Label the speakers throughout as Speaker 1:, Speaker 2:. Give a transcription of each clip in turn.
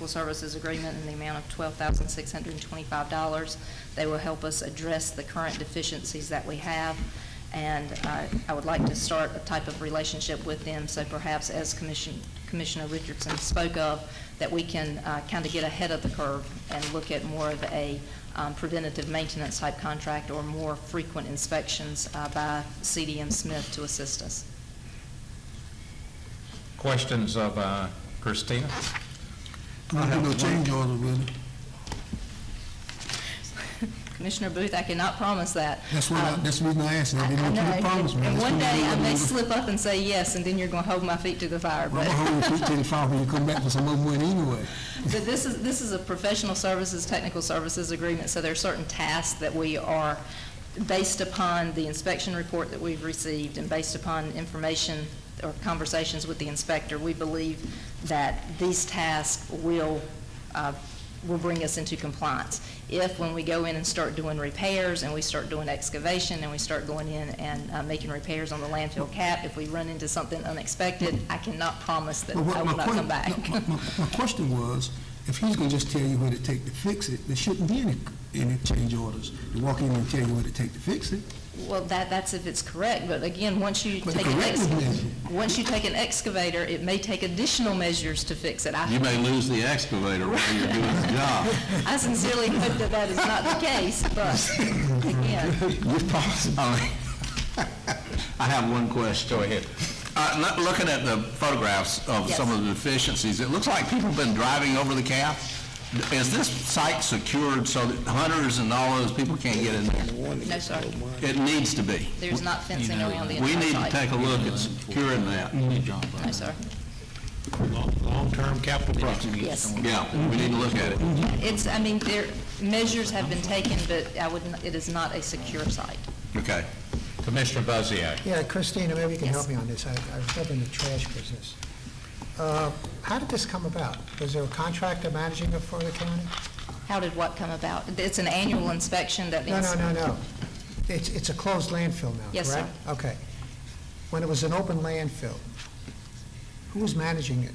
Speaker 1: Legal Services Agreement in the amount of $12,625. They will help us address the current deficiencies that we have, and uh, I would like to start a type of relationship with them, so perhaps as Commission- Commissioner Richardson spoke of, that we can uh, kind of get ahead of the curve and look at more of a um, preventative maintenance type contract or more frequent inspections uh, by CDM Smith to assist us.
Speaker 2: Questions of uh, Christina?
Speaker 3: Don't do no change orders with it.
Speaker 1: Commissioner Booth, I cannot promise that.
Speaker 3: That's what, I-
Speaker 1: Um,
Speaker 3: that's the reason I asked, I
Speaker 1: I
Speaker 3: didn't want you
Speaker 1: know,
Speaker 3: to promise me.
Speaker 1: and
Speaker 3: That's
Speaker 1: one
Speaker 3: what
Speaker 1: day I
Speaker 3: I'm
Speaker 1: may
Speaker 3: gonna-
Speaker 1: slip up and say yes, and then you're going to hold my feet to the fire.
Speaker 3: I'm
Speaker 1: But,
Speaker 3: gonna hold you to the fire when you come back for some more money anyway.
Speaker 1: but this is, this is a professional services, technical services agreement, so there are certain tasks that we are, based upon the inspection report that we've received and based upon information or conversations with the inspector, we believe that these tasks will, uh, will bring us into compliance. If, when we go in and start doing repairs, and we start doing excavation, and we start going in and uh, making repairs on the landfill cap, if we run into something unexpected, I cannot promise that I
Speaker 3: But what my
Speaker 1: will not
Speaker 3: que-
Speaker 1: come back.
Speaker 3: no, My, my- my question was, if he's gonna just tell you what it take to fix it, there shouldn't be any, any change orders. You walk in and tell you what it take to fix it.
Speaker 1: Well, that, that's if it's correct, but again, once you
Speaker 3: But
Speaker 1: take an
Speaker 3: correct
Speaker 1: ex-
Speaker 3: is measure.
Speaker 1: once you take an excavator, it may take additional measures to fix it.
Speaker 4: You
Speaker 1: I,
Speaker 4: may lose the excavator while you're doing the job.
Speaker 1: I sincerely hope that that is not the case, but again,
Speaker 4: I mean, I have one question.
Speaker 2: Go ahead.
Speaker 4: Uh, not looking at the photographs of
Speaker 1: Yes.
Speaker 4: some of the deficiencies, it looks like people have been driving over the cap. Is this site secured so that hunters and all those people can't get in there?
Speaker 1: no, sir,
Speaker 4: It needs to be.
Speaker 1: there's not fencing around the
Speaker 4: We need to
Speaker 1: entire site.
Speaker 4: take a look at securing that.
Speaker 1: No, sir.
Speaker 2: Long-term capital project.
Speaker 1: Yes.
Speaker 4: Yeah, we need to look at it.
Speaker 1: It's, I mean, there, measures have been taken, but I would, n- it is not a secure site.
Speaker 4: Okay.
Speaker 2: Commissioner Buzzio,
Speaker 5: Yeah, Christina, maybe you can
Speaker 1: Yes.
Speaker 5: help me on this. I I was up in the trash business. Uh, How did this come about? Was there a contractor managing it for the county?
Speaker 1: How did what come about? It's an annual inspection that.
Speaker 5: No,
Speaker 1: is-
Speaker 5: no, no, no. It's, it's a closed landfill now, correct?
Speaker 1: Yes, sir.
Speaker 5: Okay. When it was an open landfill, who was managing it?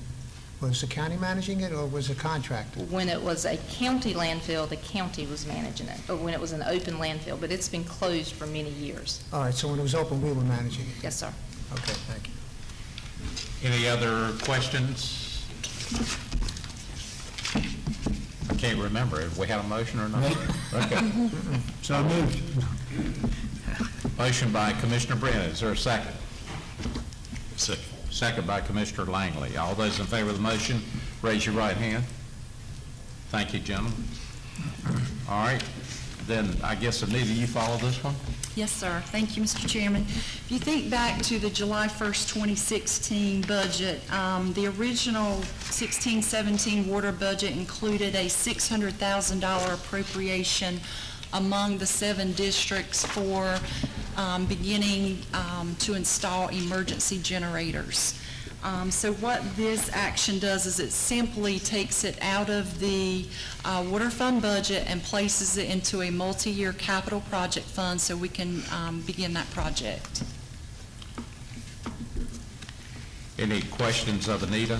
Speaker 5: Was the county managing it, or was a contractor?
Speaker 1: When it was a county landfill, the county was managing it, or when it was an open landfill, but it's been closed for many years.
Speaker 5: All right, so when it was open, we were managing it.
Speaker 1: Yes, sir.
Speaker 5: Okay, thank you.
Speaker 2: any other questions? I can't remember, if we had a motion or not? Okay.
Speaker 3: So I moved.
Speaker 2: Motion by Commissioner Brennan, is there a second? Second. Second by Commissioner Langley. All those in favor of the motion, raise your right hand. Thank you, gentlemen. All right, then I guess Anita, you follow this one?
Speaker 6: Yes, sir. Thank you, Mr. Chairman. If you think back to the July 1st, 2016 budget, um, the original 16-17 water budget included a $600,000 appropriation among the seven districts for um, beginning um, to install emergency generators. Um, So what this action does is it simply takes it out of the uh, water fund budget and places it into a multi-year capital project fund so we can um, begin that project.
Speaker 2: Any questions of Anita?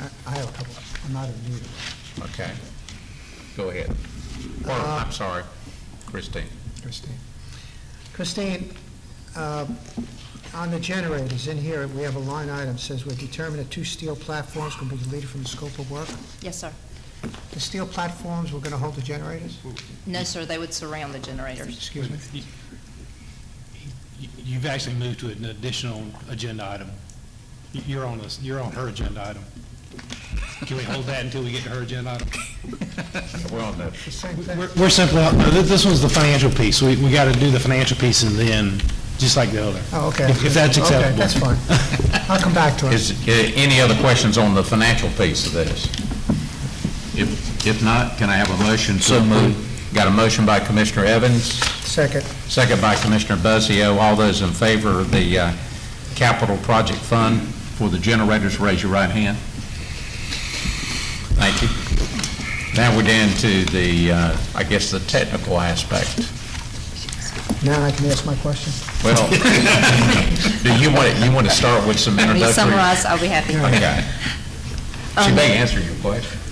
Speaker 5: I- I have a couple. I'm not a leader.
Speaker 2: Okay, go ahead. Or, I'm sorry, Christine.
Speaker 5: Christine. Christine, uh, on the generators, in here, we have a line item, says we determine that two steel platforms can be deleted from the scope of work.
Speaker 1: Yes, sir.
Speaker 5: The steel platforms, we're going to hold the generators?
Speaker 1: No, sir, they would surround the generators.
Speaker 5: Excuse me?
Speaker 7: You- you- You've actually moved to an additional agenda item. You- You're on this, you're on her agenda item. Can we hold that until we get to her agenda item?
Speaker 2: We're on the
Speaker 5: The same thing.
Speaker 7: We're- We're simply, uh, no, thi- this was the financial piece. We, we got to do the financial piece and then, just like the other.
Speaker 5: Oh, okay.
Speaker 7: If if that's
Speaker 5: Okay,
Speaker 7: acceptable.
Speaker 5: that's fine. I'll come back to it.
Speaker 2: Is, uh, any other questions on the financial piece of this? If, if not, can I have a motion to approve? Got a motion by Commissioner Evans,
Speaker 5: Second.
Speaker 2: second by Commissioner Buzzio. All those in favor of the uh, capital project fund for the generators, raise your right hand. Thank you. Now we're down to the, uh, I guess, the technical aspect.
Speaker 5: Now I can ask my question.
Speaker 2: Well, do you want, you want to start with some
Speaker 1: Let me Um,
Speaker 2: introductory?
Speaker 1: summarize, I'll be happy.
Speaker 2: Okay. She may answer your question.